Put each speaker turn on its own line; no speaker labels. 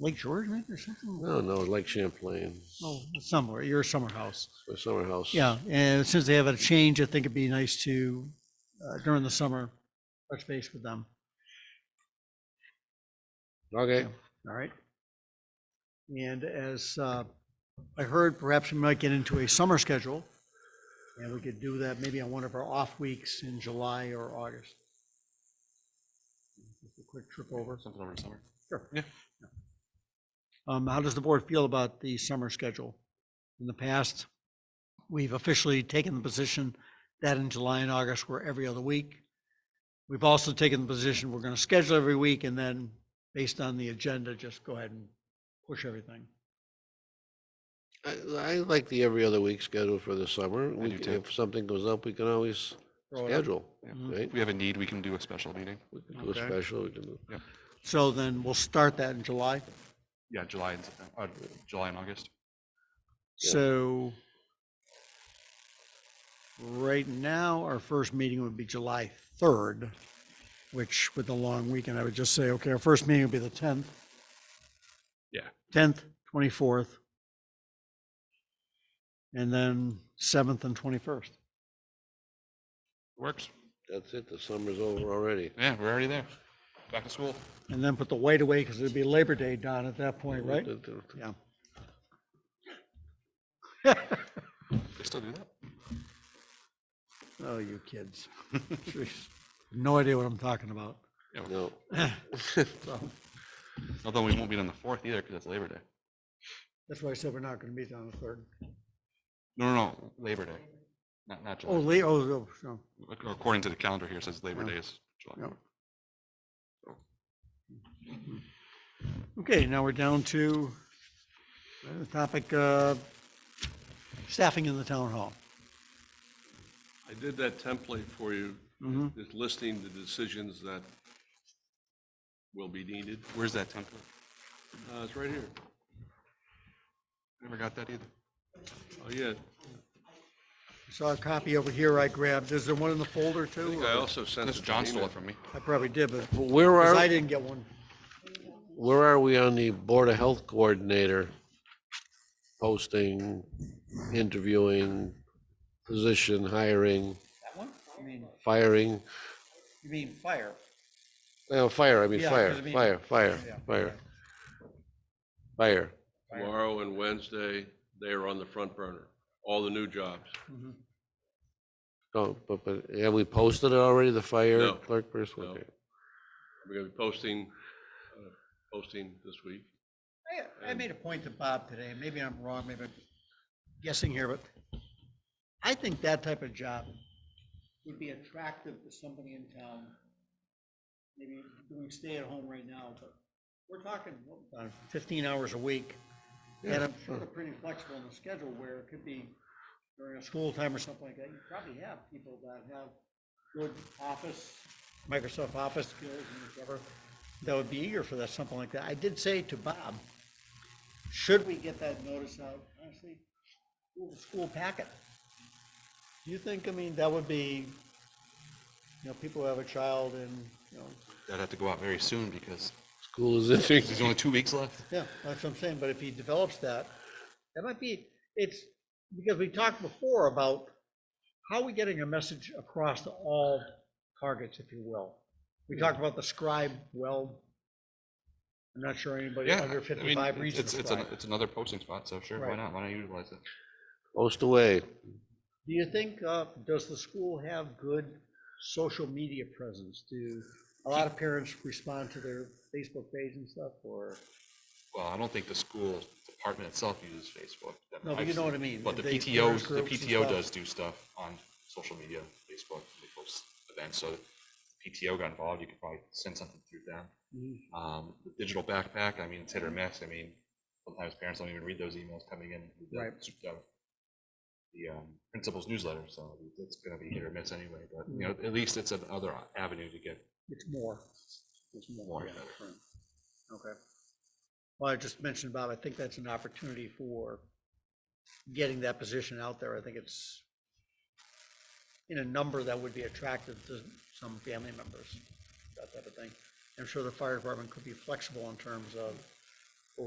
Lake George maybe or something?
No, no, Lake Champlain,
Oh, somewhere, your summer house.
my summer house.
Yeah, and since they have a change, I think it'd be nice to, uh, during the summer, touch base with them.
Okay,
All right. And as uh, I heard, perhaps we might get into a summer schedule. And we could do that maybe on one of our off weeks in July or August. Just a Quick trip over.
Something over the summer.
Sure.
Yeah.
Um, how does the board feel about the summer schedule? In the past, we've officially taken the position that in July and August, we're every other week. We've also taken the position we're gonna schedule every week and then, based on the agenda, just go ahead and push everything.
I, I like the every other week schedule for the summer.
I
We
do
can-
too.
If something goes up, we can always
Throw it up.
schedule,
Yeah.
Mhm.
right?
If we have a need, we can do a special meeting.
We can do a
Okay.
special, we can do.
So then we'll start that in July.
Yeah, July and, Septem- uh, July and August.
Yeah.
So right now, our first meeting would be July 3rd, which with the long weekend, I would just say, okay, our first meeting would be the 10th.
Yeah.
10th, 24th. And then 7th and 21st.
Works.
That's it, the summer's over already.
Yeah, we're already there. Back to school.
And then put the white away because it'd be Labor Day, Don, at that point, right?
Th- th- th-
Yeah.
They still do that?
Oh, you kids. Jeez. No idea what I'm talking about.
No,
So
Although we won't meet on the fourth either because that's Labor Day.
that's why I said we're not going to meet on the 3rd.
No, no, no, Labor Day. Not, not
Oh,
July.
late, oh, so.
Ac- According to the calendar here, it says Labor
Yeah.
Day is July.
Yep. Okay, now we're down to uh, the topic, uh, staffing in the town hall.
I did that template for you,
Mhm.
just listing the decisions that will be needed.
Where's that template?
Uh, It's right here.
Never got that either.
Oh, yeah.
I Saw a copy over here I grabbed. Is there one in the folder
I
too?
think I also sent
Unless
it to
John stole
email.
it from me.
I probably did, but
But where
'cause I
are,
didn't get one.
where are we on the Board of Health Coordinator? Posting, interviewing, position, hiring,
That one? You mean,
firing,
you mean fire?
no, fire, I mean,
Yeah,
fire,
'cause I mean-
fire, fire,
Yeah.
fire. Fire.
Tomorrow and Wednesday, they are on the front burner, all the new jobs.
Oh, but, but have we posted it already, the fire
No.
clerk person?
No.
Okay.
We're going to be posting, uh, posting this week.
I, I made a point to Bob today, and maybe I'm wrong, maybe I'm guessing here, but I think that type of job would be attractive to somebody in town. Maybe doing stay at home right now, but we're talking what, about fifteen hours a week. And I'm sure they're pretty flexible in the schedule where it could be during a school time or something like that. You probably have people that have good office, Microsoft Office skills and whatever, that would be eager for that, something like that. I did say to Bob, should we get that notice out, honestly, do the school packet? Do you think, I mean, that would be, you know, people who have a child and, you know,
That'd have to go out very soon because
School is entering.
there's only two weeks left.
yeah, that's what I'm saying, but if he develops that, that might be, it's, because we talked before about how are we getting a message across to all targets, if you will? We talked about the scribe, well, I'm not sure anybody
Yeah.
under
I mean,
fifty-five reads the
It's, it's, an-
scribe.
it's another posting spot, so sure, why
Right.
not? Why not utilize it?
Post away.
Do you think, uh, does the school have good social media presence? Do a lot of parents respond to their Facebook page and stuff, or?
Well, I don't think the school department itself uses Facebook. that
No, but
I've
you know
seen.
what I mean,
But the
they-
PTO,
parents
the
groups and
PTO
stuff.
does do stuff on social media, Facebook, they post events, so PTO got involved, you could probably send something through them.
Mm-hmm.
Um, the digital backpack, I mean, it's hit or miss, I mean, sometimes parents don't even read those emails coming in. with the-
Right.
the- The, um, principal's newsletter, so it's gonna be hit or miss anyway, but, you know,
Mm-hmm.
at least it's another avenue to get
It's more. It's
More,
yeah, right. Okay. Well, I just mentioned, Bob, I think that's an opportunity for getting that position out there. I think it's in a number that would be attractive to some family members, that type of thing. I'm sure the fire department could be flexible in terms of